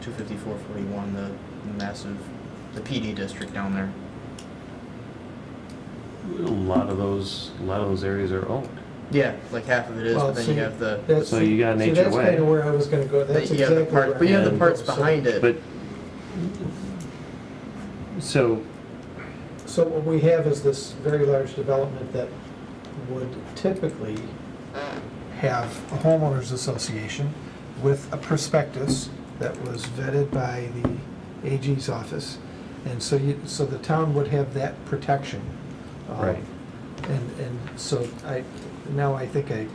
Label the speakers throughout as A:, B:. A: two fifty-four forty-one, the massive, the PD district down there.
B: A lot of those, a lot of those areas are owned.
A: Yeah, like half of it is,
C: Well,
A: but then
C: so
A: you
C: you-
A: have the,
C: That's-
B: So you got Nature
C: So that's
B: Way.
C: kind of where I was gonna go, that's
A: you have
C: exactly
A: the
C: where.
A: part, but you have the
C: I'm
A: parts
C: going. So-
A: behind it.
B: But, so,
C: So what we have is this very large development that would typically have a homeowners association with a prospectus that was vetted by the AG's office. And so you, so the town would have that protection. Um,
B: Right.
C: And, and so I, now I think I,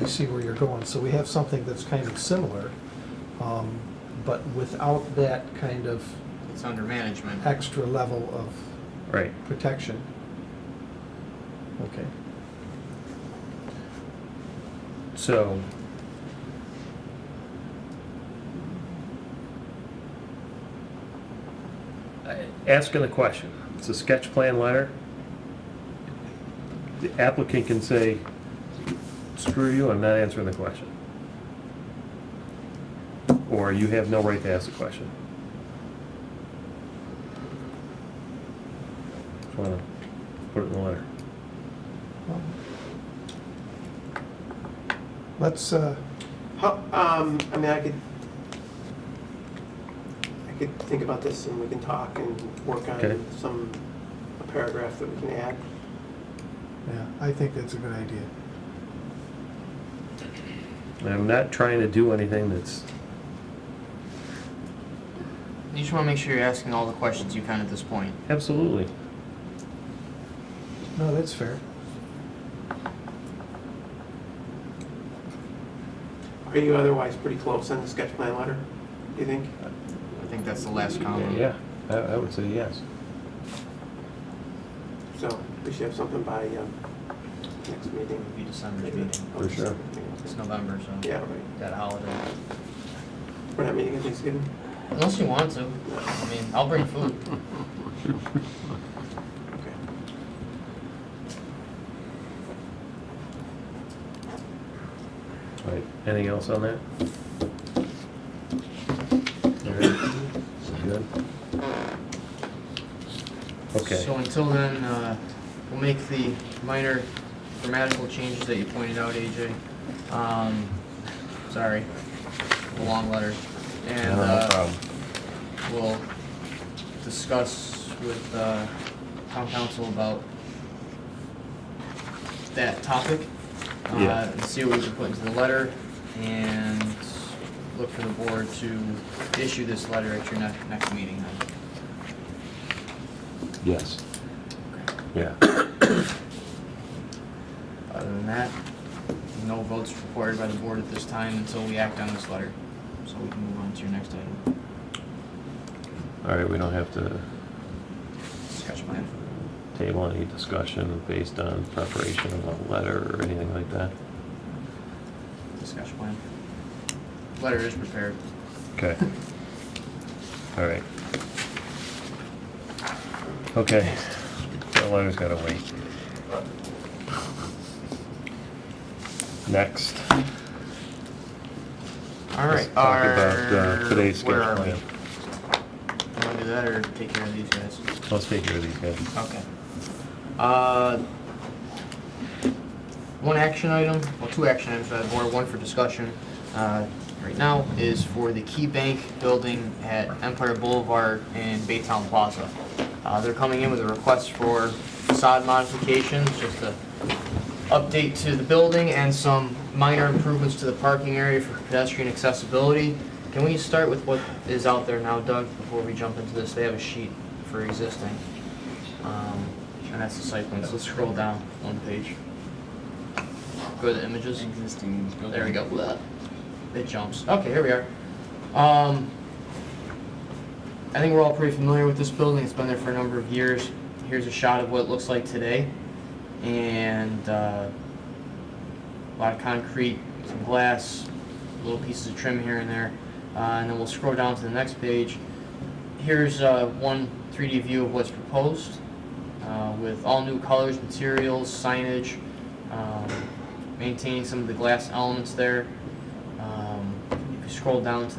C: I see where you're going. So we have something that's kind of similar, um, but without that kind of
A: It's under management.
C: extra level of
B: right,
C: protection. Okay.
B: so. I- Asking the question, it's a sketch plan letter. The applicant can say, screw you, I'm not answering the question. Or you have no right to ask the question. Just wanna put it in the letter.
C: Well, Let's, uh,
D: How, um, I mean, I could, I could think about this and we can talk and work
B: Okay.
D: on some, a paragraph that we can add.
C: yeah, I think that's a good idea.
B: And I'm not trying to do anything that's,
A: You just wanna make sure you're asking all the questions you can at this point.
B: absolutely.
C: No, that's fair.
D: Are you otherwise pretty close on the sketch plan letter, do you think?
A: I think that's the last column.
B: Yeah, I, I would say yes.
D: So we should have something by, um, next meeting.
A: It'll be December's meeting.
B: For sure.
A: It's November, so.
D: Yeah, right.
A: That holiday.
D: We're not meeting at Thanksgiving?
A: Unless you want to. I mean, I'll bring food.
D: Okay.
B: All right, anything else on that? All right, Good? Okay,
A: So until then, uh, we'll make the minor grammatical changes that you pointed out, AJ. Um, sorry, the long letter. And,
B: No, no
A: uh, we'll discuss with, uh, town council about that topic. uh,
B: Yeah.
A: And see what we can put into the letter and look for the board to issue this letter at your next, next meeting then.
B: yes. Yeah,
A: Other than that, no votes required by the board at this time until we act on this letter. So we can move on to your next item,
B: all right, we don't have to
A: sketch plan.
B: table any discussion based on preparation of a letter or anything like that?
A: The sketch plan. Letter is prepared.
B: Okay. All right. Okay, that letter's gotta wait. Next.
A: All
B: Let's
A: right,
B: talk
A: our.
B: about, uh, today's sketch
A: Where are we?
B: plan.
A: Want to do that or take care of these guys?
B: Let's take care of these guys.
A: Okay. Uh, One action item, well, two action items, uh, or one for discussion uh, right now, is for the Key Bank building at Empire Boulevard and Baytown Plaza. Uh, They're coming in with a request for facade modifications, just a update to the building and some minor improvements to the parking area for pedestrian accessibility. Can we start with what is out there now, Doug, before we jump into this? They have a sheet for existing. Um, And that's the site plan, so let's scroll down one page. Go to the images.
E: Existing building.
A: There we go. Blah. It jumps. Okay, here we are. Um, I think we're all pretty familiar with this building. It's been there for a number of years. Here's a shot of what it looks like today. And uh, a lot of concrete, some glass, little pieces of trim here and there. Uh, and then we'll scroll down to the next page. Here's uh, one 3D view of what's proposed uh, with all new colors, materials, signage, um, maintaining some of the glass elements there. Um, if you scroll down to the